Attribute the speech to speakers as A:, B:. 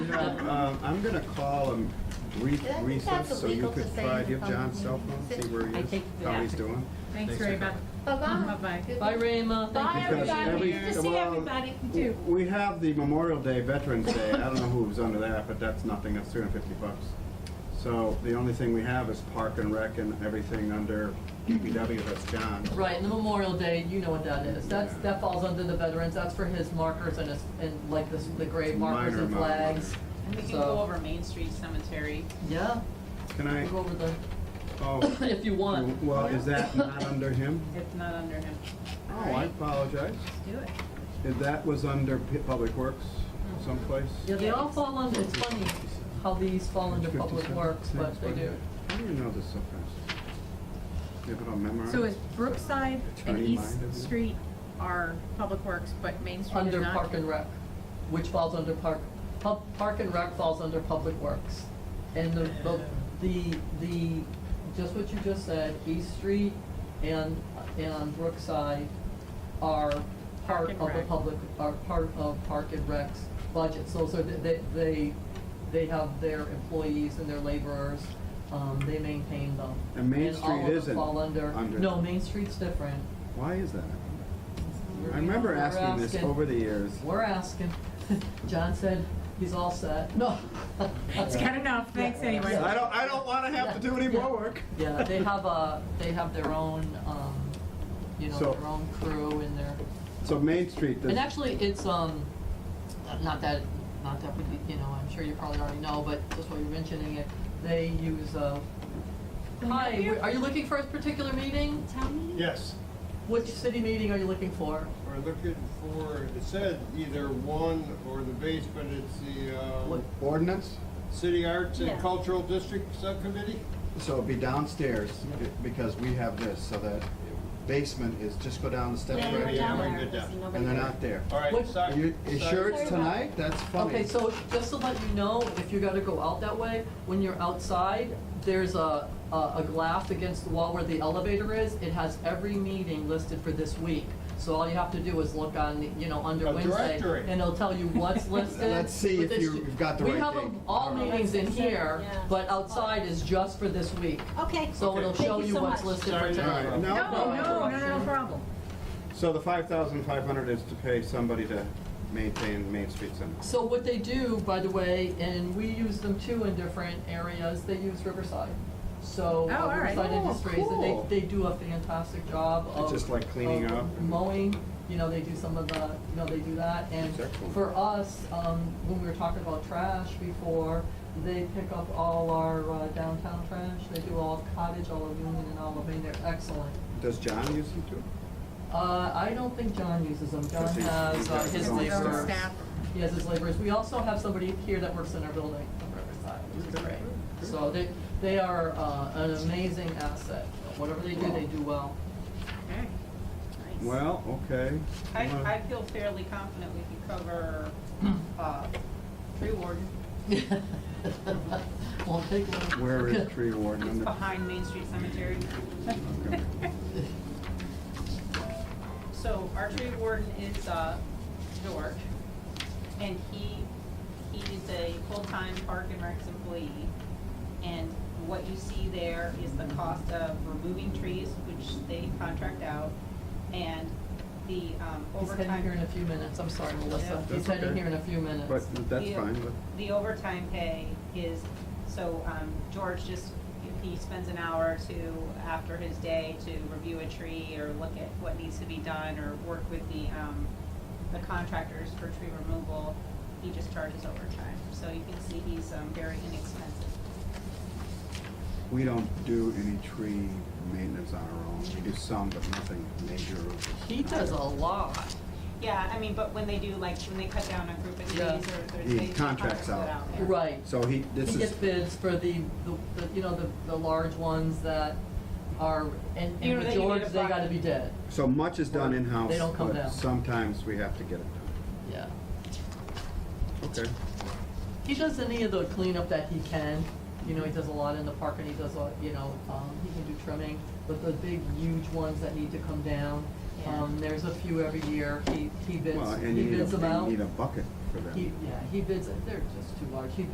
A: Um, I'm gonna call him re-
B: Yeah, I think
A: recess,
B: that's
A: so you
B: illegal
A: could
B: to say
A: try,
B: in
A: do you have
B: the
A: John's cell
B: public
A: phone,
B: meeting.
A: see where he
C: I
A: is,
C: think-
A: how
C: yeah.
A: he's doing?
D: Thanks very much.
B: Bye-bye.
D: Bye-bye.
B: Good-
C: Bye, Rayma. Thank you
D: Bye,
C: for
A: Because
C: being
A: every-
C: here.
D: Good to see
A: well,
D: everybody, too.
A: We have the Memorial Day, Veterans Day, I don't know who was under that, but that's nothing, that's three hundred fifty bucks. So the only thing we have is park and rec and everything under DPW, that's John.
C: Right, and the Memorial Day, you know what that is. That's, that falls under the veterans. That's for his markers and his, and like this, the
A: It's
C: grave
A: a
C: markers
A: minor
C: and
A: amount of money.
C: flags.
D: And we can
C: So-
D: go over Main Street Cemetery.
C: Yeah,
A: Can I,
C: we'll go over the,
A: oh,
C: if you want.
A: well, is that not under him?
D: It's not under him.
A: Oh, I apologize,
D: Let's do it.
A: If that was under P- Public Works someplace?
C: Mm-hmm. Yeah, they all fall under, it's funny how these fall under public
A: 57
C: works, but
A: cents,
C: they
A: what?
C: do.
A: How do you know this so fast? You have it all memorized?
E: So is Brookside and
A: Hmm? Attorney
E: East
A: minded.
E: Street are public works, but Main Street is
C: Under
E: not?
C: Park and Rec, which falls under Park, Pub, Park and Rec falls under Public Works. And the, the, the, the, just what you just said, East Street and, and Brookside are part
E: and
C: of the
E: Rec.
C: public, are part of Park and Rec's budget. So, so they, they, they have their employees and their laborers, um, they maintain them.
A: And Main
C: all
A: Street
C: of them
A: isn't
C: fall under,
A: under-
C: no, Main Street's different.
A: Why is that?
C: We're-
A: I remember
C: we're
A: asking this
C: asking-
A: over the years.
C: We're asking. John said he's all set. No.
E: It's got enough, thanks anyway.
A: I don't, I don't wanna have to do any more work.
C: Yeah, they have a, they have their own, um, you know,
A: So-
C: their own crew and their,
A: So Main Street,
C: and
A: does-
C: actually, it's, um, not that, not that, we you know, I'm sure you probably already know, but just while you're mentioning it, they use, uh, hi,
E: you?
C: are you looking for a particular meeting?
F: Yes,
C: Which city meeting are you looking for?
F: we're looking for, it said either one or the base, but it's the,
C: What-
F: um,
A: ordinance,
F: City Arts and
D: Yeah.
F: Cultural District Subcommittee?
G: So it'd be downstairs, be- because we have this, so that basement is, just go down the steps
F: Yeah,
G: right
F: down
G: here,
F: there.
G: and they're not there.
F: All right,
C: What-
F: sorry.
G: Are you, you
F: sorry.
G: sure it's tonight? That's funny.
C: Okay, so just to let you know, if you gotta go out that way, when you're outside, there's a, a, a glass against the wall where the elevator is. It has every meeting listed for this week. So all you have to do is look on, the- you know, under
F: A
C: Wednesday.
F: directory.
C: And it'll tell you what's listed.
G: Let's see
C: But
G: if
C: it's-
G: you've got the
C: We
G: right
C: have
G: date.
C: them all
G: All right.
C: meetings in here,
B: Yeah.
C: but outside is just for this week.
B: Okay.
C: So it'll
B: Thank
C: show
B: you
C: you
B: so
C: what's
B: much.
C: listed for
F: Sorry,
C: tonight.
A: all right,
E: No,
A: now,
E: no, no, no
C: interruption.
E: problem.
A: so the five thousand five hundred is to pay somebody to maintain Main Street Center.
C: So what they do, by the way, and we use them too in different areas, they use Riverside. So
E: Oh,
C: uh,
E: all right.
C: Riverside
A: Oh,
C: Industries, and
A: cool.
C: they, they do a fantastic job
A: It's
C: of.
A: just like cleaning
C: of
A: up and-
C: Mowing, you know, they do some of the, you know, they do that. And
A: That's excellent.
C: for us, um, when we were talking about trash before, they pick up all our uh, downtown trash. They do all of Cottage, all of Union, and all of Maine, they're excellent.
A: Does John use them too?
C: Uh, I don't think John uses them, John
A: Because he's-
C: has
A: he's
C: uh,
A: got
C: his
A: his own
C: laborers.
E: staff.
C: He has his laborers, we also have somebody here that works in our building from Riverside, which is great. So they, they are, uh, an amazing asset, whatever they do, they do well.
E: Okay. Nice.
A: Well, okay.
D: I,
A: Well,
D: I feel fairly confident we can cover,
E: Hmm.
D: uh, tree warden.
C: Won't take long.
A: Where is tree warden?
D: It's
A: under-
D: behind Main Street Cemetery.
A: Okay.
D: So our tree warden is, uh, George, and he, he is a full-time park and recs employee. And what you see there is the cost of removing trees, which they contract out, and the um,
C: He's heading here in a
D: overtime,
C: few minutes, I'm sorry, Melissa,
D: Yeah.
C: he's
A: That's
C: heading
A: okay.
C: here in a few minutes.
A: But that's
D: The-
A: fine, but.
D: the overtime pay is, so, um, George just, he spends an hour or two after his day to review a tree or look at what needs to be done or work with the, um, the contractors for tree removal. He just charges overtime, so you can see he's, um, very inexpensive.
A: We don't do any tree maintenance on our own. We do some, but nothing major.
C: He does a lot,
D: Yeah, I mean, but when they do, like, when they cut down a group of trees
C: Yeah.
D: or there's.
A: He
D: they- they
A: contracts
D: contract it
A: out.
D: yeah.
C: right.
A: So he, this
C: He
A: is,
C: gets bids for the, the- the, you know, the, the large ones that are, and,
D: You know,
C: and with
D: that you need
C: George,
D: a
C: they gotta
D: bucket.
C: be dead,
A: so much is done in-house,
C: They don't come
A: but
C: down.
A: sometimes we have to get it
C: yeah.
A: done. Okay.
C: He does any of the cleanup that he can, you know, he does a lot in the park and he does, a you know, um, he can do trimming, but the big huge ones that need to come down, um, there's a few every year, he, he bids,
A: Well, and
C: he
A: you need a,
C: bids them
A: you
C: out.
A: need a bucket. for them.
C: He, yeah, he bids, they're just too large. He